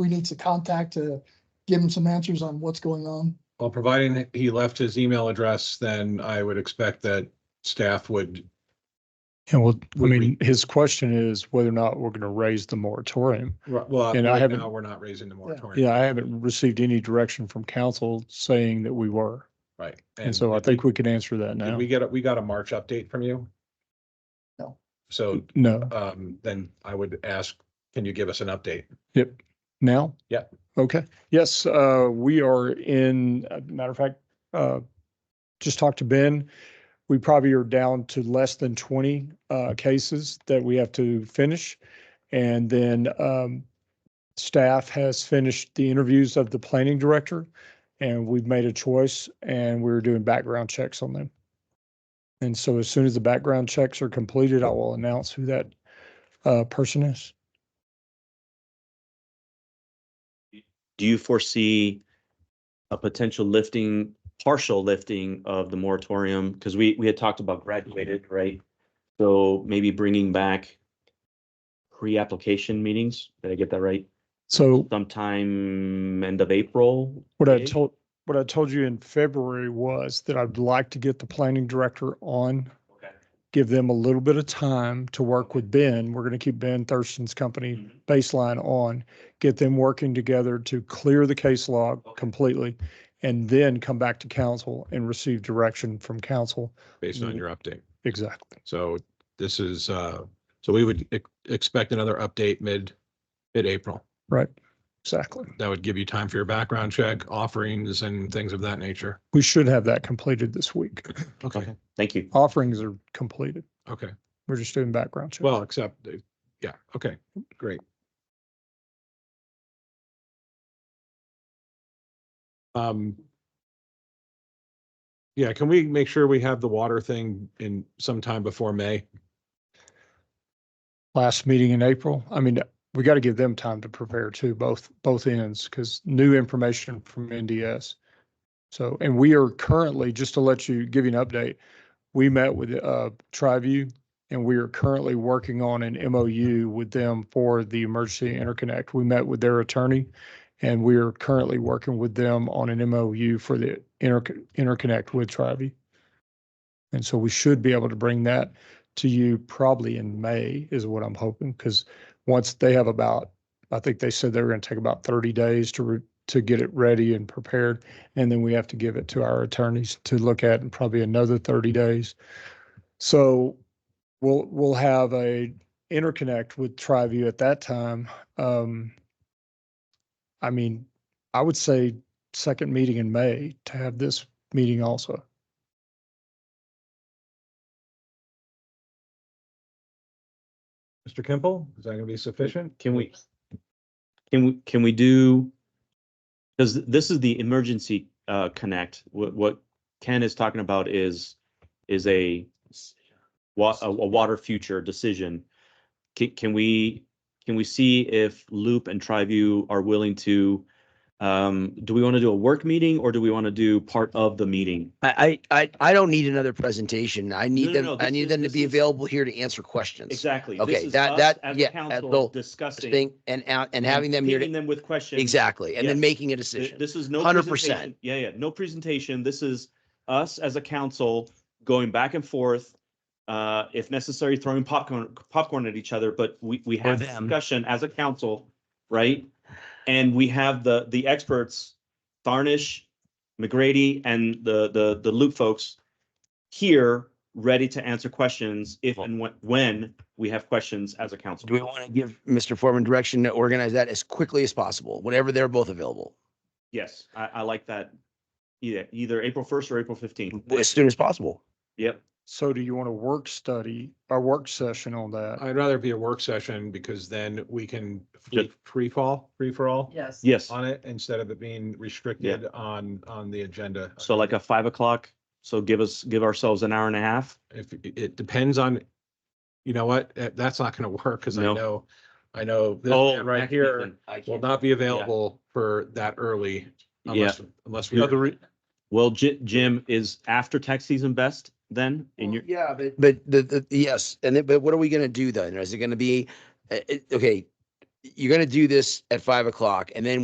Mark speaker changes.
Speaker 1: we need to contact to give him some answers on what's going on.
Speaker 2: Well, providing that he left his email address, then I would expect that staff would,
Speaker 3: And well, I
Speaker 2: Would we-
Speaker 3: mean, his question is whether or not we're going to raise the moratorium.
Speaker 2: well,
Speaker 3: And I
Speaker 2: right
Speaker 3: haven't-
Speaker 2: now, we're not raising the moratorium.
Speaker 3: Yeah, I haven't received any direction from council saying that we were.
Speaker 2: Right.
Speaker 3: And so I think we can answer
Speaker 2: Did
Speaker 3: that now.
Speaker 2: we get, a- we got a March update from you?
Speaker 1: No.
Speaker 2: So,
Speaker 3: No,
Speaker 2: um, then I would ask, can you give us an update?
Speaker 3: now?
Speaker 2: Yeah.
Speaker 3: Okay. Yes, uh, we are in, uh, matter of fact, uh, just talked to Ben. We probably are down to less than twenty, uh, cases that we have to finish. And then, um, staff has finished the interviews of the planning director and we've made a choice and we're doing background checks on them. And so as soon as the background checks are completed, I will announce who that, uh, person is.
Speaker 4: do you foresee a potential lifting, partial lifting of the moratorium? Because we, we had talked about graduated, right? So maybe bringing back pre-application meetings, did I get that right?
Speaker 3: So
Speaker 4: Sometime end of April?
Speaker 3: What I
Speaker 4: Dave?
Speaker 3: told, what I told you in February was that I'd like to get the planning director on,
Speaker 4: Okay.
Speaker 3: give them a little bit of time to work with Ben. We're going to keep Ben Thurston's company
Speaker 4: Mhm.
Speaker 3: baseline on, get them working together to clear the case log
Speaker 4: Okay.
Speaker 3: completely, and then come back to council and receive direction from council.
Speaker 2: Based
Speaker 3: Mm-hmm.
Speaker 2: on your update.
Speaker 3: Exactly.
Speaker 2: So this is, uh, so we would ex- expect another update mid, mid-April.
Speaker 3: Right. Exactly.
Speaker 2: That would give you time for your background check, offerings and things of that nature.
Speaker 3: We should have that completed this week.
Speaker 2: Okay,
Speaker 4: Thank you.
Speaker 3: Offerings are completed.
Speaker 2: okay.
Speaker 3: We're just doing background checks.
Speaker 2: Well, except, uh, yeah, okay, great. Um. Yeah, can we make sure we have the water thing in sometime before May?
Speaker 3: last meeting in April. I mean, we got to give them time to prepare too, both, both ends, because new information from NDS. So, and we are currently, just to let you, give you an update, we met with, uh, Triview and we are currently working on an MOU with them for the emergency interconnect. We met with their attorney and we are currently working with them on an MOU for the inter, interconnect with Triview. And so we should be able to bring that to you probably in May is what I'm hoping, because once they have about, I think they said they were going to take about thirty days to, re- to get it ready and prepared. And then we have to give it to our attorneys to look at in probably another thirty days. So we'll, we'll have a interconnect with TriView at that time. Um, I mean, I would say second meeting in May to have this meeting also.
Speaker 2: Mr. Kimple, is that gonna be sufficient?
Speaker 4: Can we, can we, can we do? Because this is the emergency uh, connect. What, what Ken is talking about is, is a wa- a, a water future decision. Can, can we, can we see if Loop and Triview are willing to? Um, do we want to do a work meeting or do we want to do part of the meeting?
Speaker 5: I, I, I I don't need another presentation. I
Speaker 4: No,
Speaker 5: need
Speaker 4: no,
Speaker 5: them,
Speaker 4: no,
Speaker 5: I
Speaker 4: this is-
Speaker 5: need them to
Speaker 4: this
Speaker 5: be
Speaker 4: is-
Speaker 5: available here to answer questions.
Speaker 4: Exactly.
Speaker 5: Okay,
Speaker 4: This is
Speaker 5: that-
Speaker 4: us
Speaker 5: that-
Speaker 4: as a
Speaker 5: yeah,
Speaker 4: Council
Speaker 5: they'll-
Speaker 4: discussing.
Speaker 5: Thing and out, and
Speaker 4: and
Speaker 5: having them here
Speaker 4: pinging
Speaker 5: to,
Speaker 4: Them with questions.
Speaker 5: exactly, and then
Speaker 4: Yes.
Speaker 5: making a
Speaker 4: Th-
Speaker 5: decision.
Speaker 4: This is no.
Speaker 5: 100%.
Speaker 4: presentation. Yeah, yeah, no presentation. This is us as a council going back and forth. Uh, if necessary, throwing popcorn, popcorn at each other, but we, we have
Speaker 5: them.
Speaker 4: discussion as a council, right? And we have the, the experts, Tharnish, McGrady and the, the, the Loop folks here, ready to answer questions if and when, when we have questions as a council.
Speaker 5: Do we want to give Mr. Foreman direction to organize that as quickly as possible, whenever they're both available,
Speaker 4: Yes, I, I like that. Either, either April first or April fifteenth.
Speaker 5: as soon as possible?
Speaker 4: Yep.
Speaker 3: So do you want a work study, a work session on that?
Speaker 2: I'd rather it be a work session because then we can
Speaker 4: Just-
Speaker 2: free- free fall, free for all
Speaker 6: Yes.
Speaker 4: Yes.
Speaker 2: on it instead of it being restricted on, on the agenda.
Speaker 4: So like a five o'clock. So give us, give ourselves an hour and a half.
Speaker 2: if it depends on, you know what, eh, that's not gonna work, cause I
Speaker 4: No.
Speaker 2: know, I know this
Speaker 4: Oh,
Speaker 2: man right here will not be available for that early
Speaker 4: Yeah.
Speaker 2: unless, unless we,
Speaker 4: Yeah. Well, Ji- Jim, is after tax season best then? And you're,
Speaker 5: Yeah, but. But the, the, yes, and then, but what are we going to do then? Is it going to be, uh, it- okay, you're gonna do this at five o'clock and then